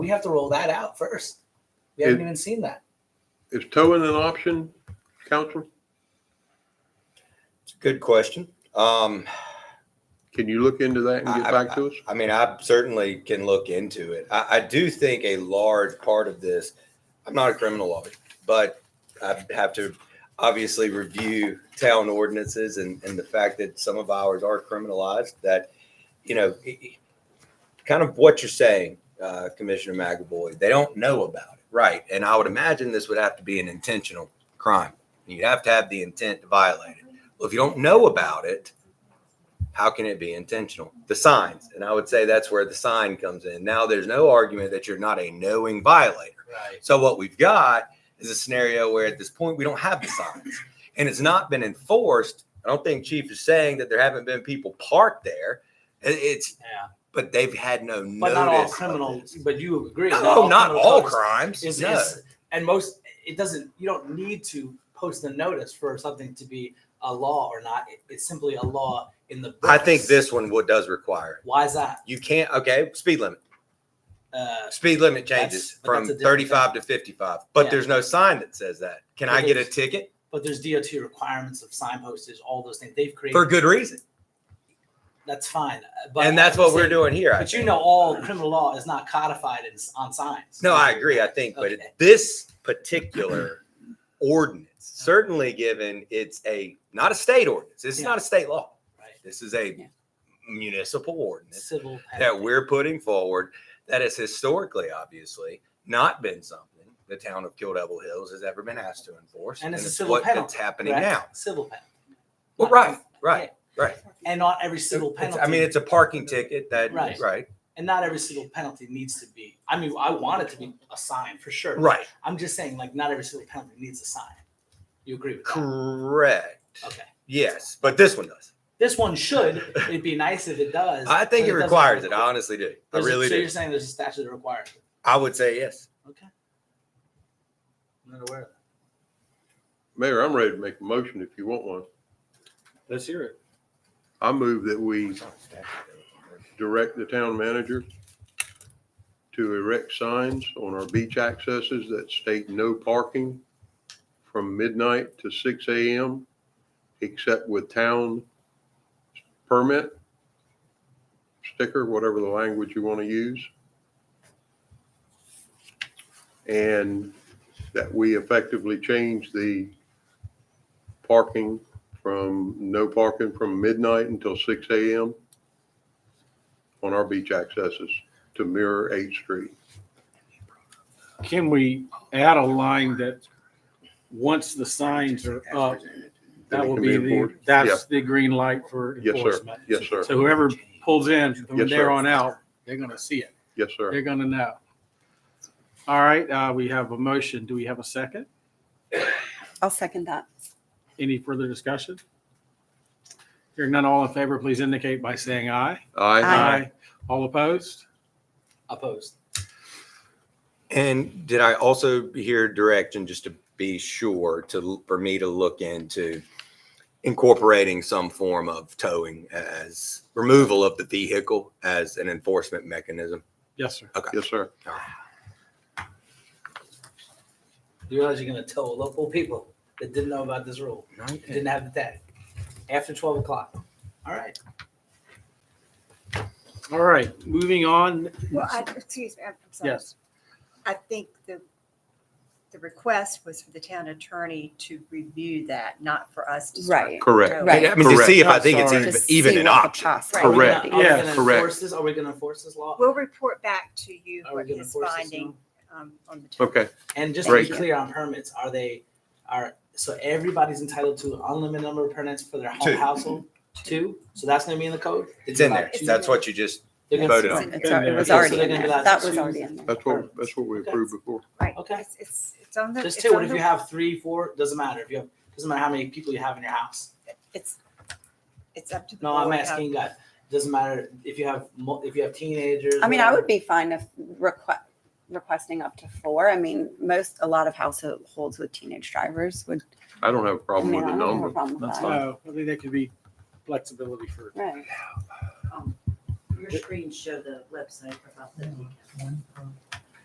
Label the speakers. Speaker 1: We have to roll that out first. We haven't
Speaker 2: It-
Speaker 1: even seen that.
Speaker 2: Is towing an option, council?
Speaker 3: It's a good question. Um,
Speaker 2: Can you look into that and get
Speaker 3: I-
Speaker 2: back to us?
Speaker 3: I mean, I certainly can look into it. I, I do think a large part of this, I'm not a criminal lawyer, but I have to obviously review town ordinances and, and the fact that some of ours are criminalized that, you know, i- i- kind of what you're saying, uh, Commissioner McAvoy, they don't know about it. Right. And I would imagine this would have to be an intentional crime. You'd have to have the intent to violate it. Well, if you don't know about it, how can it be intentional? The signs. And I would say that's where the sign comes in. Now there's no argument that you're not a knowing violator.
Speaker 1: Right.
Speaker 3: So what we've got is a scenario where at this point we don't have the signs and it's not been enforced. I don't think Chief is saying that there haven't been people parked there. It- It's
Speaker 1: Yeah.
Speaker 3: but they've had no notice.
Speaker 1: But not all
Speaker 3: of
Speaker 1: criminal.
Speaker 3: this.
Speaker 1: But you agree.
Speaker 3: No, not
Speaker 1: criminal
Speaker 3: all
Speaker 1: codes
Speaker 3: crimes.
Speaker 1: Is,
Speaker 3: No.
Speaker 1: is, and most, it doesn't, you don't need to post a notice for something to be a law or not. It, it's simply a law in the books.
Speaker 3: I think this one would does require it.
Speaker 1: Why is that?
Speaker 3: You can't okay, speed limit.
Speaker 1: Uh,
Speaker 3: Speed limit
Speaker 1: That's-
Speaker 3: changes
Speaker 1: but that's
Speaker 3: from
Speaker 1: a different
Speaker 3: 35 to 55, but
Speaker 1: Yeah.
Speaker 3: there's no sign that says that. Can
Speaker 1: But
Speaker 3: I get a
Speaker 1: there's-
Speaker 3: ticket?
Speaker 1: but there's DOT requirements of sign postage, all those things they've created.
Speaker 3: for good reason.
Speaker 1: that's fine. Uh, But
Speaker 3: and that's what we're doing here. I
Speaker 1: But you
Speaker 3: think.
Speaker 1: know, all criminal law is not codified in, on signs.
Speaker 3: No, I agree. I think, but
Speaker 1: Okay.
Speaker 3: this particular ordinance, certainly given it's a not a state ordinance, it's
Speaker 1: Yeah.
Speaker 3: not a state law.
Speaker 1: Right.
Speaker 3: This is a
Speaker 1: Yeah.
Speaker 3: municipal ordinance
Speaker 1: Civil.
Speaker 3: that we're putting forward that has historically, obviously, not been something the town of Kill Devil Hills has ever been asked to enforce.
Speaker 1: And it's a
Speaker 3: it's
Speaker 1: civil
Speaker 3: what-
Speaker 1: penalty,
Speaker 3: It's happening
Speaker 1: correct?
Speaker 3: now.
Speaker 1: Civil penalty.
Speaker 3: Well,
Speaker 1: Not-
Speaker 3: right, right.
Speaker 1: And not every civil
Speaker 3: It's-
Speaker 1: penalty.
Speaker 3: I mean, it's a parking ticket that,
Speaker 1: Right.
Speaker 3: right,
Speaker 1: and not every single penalty needs to be. I mean, I want it to be a sign for sure.
Speaker 3: right,
Speaker 1: I'm just saying, like, not every single penalty needs a sign. You agree with that?
Speaker 3: correct.
Speaker 1: Okay.
Speaker 3: Yes, but this one does.
Speaker 1: This one should. It'd be nice if it does.
Speaker 3: I think
Speaker 1: but
Speaker 3: it
Speaker 1: doesn't
Speaker 3: requires it. I
Speaker 1: require-
Speaker 3: honestly do. I
Speaker 1: There's a-
Speaker 3: really
Speaker 1: so
Speaker 3: do.
Speaker 1: you're saying there's a statute that requires it?
Speaker 3: I would say yes.
Speaker 1: Okay. I'm not aware of that.
Speaker 2: Mayor, I'm ready to make a motion if you want one.
Speaker 4: Let's hear it.
Speaker 2: I move that we direct the town manager to erect signs on our beach accesses that state no parking from midnight to six AM, except with town permit, sticker, whatever the language you want to use. And that we effectively change the parking from no parking from midnight until six AM on our beach accesses to mirror Eighth Street.
Speaker 4: Can we add a line that, once the signs are up, that
Speaker 2: Then it
Speaker 4: will
Speaker 2: can
Speaker 4: be the,
Speaker 2: enforced.
Speaker 4: that's the green light for
Speaker 2: Yes, sir.
Speaker 4: enforcement.
Speaker 2: Yes, sir.
Speaker 4: So whoever pulls in from
Speaker 2: Yes, sir.
Speaker 4: there on out, they're gonna see it.
Speaker 2: Yes, sir.
Speaker 4: They're gonna know. All right, uh, we have a motion. Do we have a second?
Speaker 5: I'll second that.
Speaker 4: Any further discussion? Hearing none, all in favor, please indicate by saying aye.
Speaker 2: Aye.
Speaker 5: Aye.
Speaker 4: All opposed?
Speaker 1: Opposed.
Speaker 3: And did I also hear direction just to be sure to for me to look into incorporating some form of towing as removal of the vehicle as an enforcement mechanism?
Speaker 4: Yes, sir.
Speaker 2: Yes, sir.
Speaker 1: You realize you're going to tell local people that didn't know about this rule, didn't have the tag, after 12 o'clock. All right.
Speaker 4: All right, moving on.
Speaker 6: Well, I, excuse me, I'm I'm sorry.
Speaker 4: Yes.
Speaker 6: I think the, the request was for the town attorney to review that, not for us to. start.
Speaker 5: Right.
Speaker 2: Correct.
Speaker 5: Right.
Speaker 3: I mean, to see if I
Speaker 4: Correct.
Speaker 3: think it's
Speaker 4: Sorry.
Speaker 3: even,
Speaker 5: Just
Speaker 3: even
Speaker 5: see
Speaker 3: an
Speaker 5: what the
Speaker 3: option.
Speaker 5: possible-
Speaker 1: Are we
Speaker 2: Correct.
Speaker 1: gonna- Are we
Speaker 4: Yeah,
Speaker 1: going to
Speaker 2: correct.
Speaker 1: enforce this? Are we going to enforce this law?
Speaker 6: We'll report back to you
Speaker 1: Are we
Speaker 6: what
Speaker 1: gonna
Speaker 6: his
Speaker 1: force this
Speaker 6: finding
Speaker 1: now?
Speaker 6: um, on the. town.
Speaker 2: Okay.
Speaker 1: And just to be
Speaker 2: Right.
Speaker 1: clear on permits, are they, are, so everybody's entitled to an unlimited number of permits for their
Speaker 3: Two.
Speaker 1: whole household? Two? So that's going to be in the code?
Speaker 3: It's in there.
Speaker 6: It's in
Speaker 3: That's
Speaker 6: there.
Speaker 3: what you just,
Speaker 1: They're gonna-
Speaker 3: Voted on.
Speaker 5: It's al- It was
Speaker 4: Yeah, so
Speaker 5: already
Speaker 1: they're
Speaker 5: in
Speaker 1: gonna
Speaker 5: there.
Speaker 1: be allowed
Speaker 5: That
Speaker 1: to
Speaker 5: was already
Speaker 1: choose.
Speaker 5: in there.
Speaker 2: That's what, that's what we approved before.
Speaker 6: Right.
Speaker 1: Okay.
Speaker 6: It's, it's, it's on the.
Speaker 1: Just
Speaker 6: it's
Speaker 1: two, what
Speaker 6: on
Speaker 1: if
Speaker 6: the-
Speaker 1: you have three, four, doesn't matter if you have, doesn't matter how many people you have in your house.
Speaker 6: It's, it's up to. the
Speaker 1: No, I'm
Speaker 6: board how-
Speaker 1: asking guys, doesn't matter if you have, mul- if you have teenagers.
Speaker 5: I mean, I
Speaker 1: whatever.
Speaker 5: would be fine if request, requesting up to four. I mean, most, a lot of households with teenage drivers would.
Speaker 2: I don't have a
Speaker 5: I
Speaker 2: problem
Speaker 5: mean,
Speaker 2: with the
Speaker 5: I don't have a
Speaker 2: number.
Speaker 5: problem with
Speaker 4: That's
Speaker 5: that.
Speaker 4: fine. Uh, I think that could be flexibility for
Speaker 5: Right.
Speaker 7: Your screen show the website about the handicap.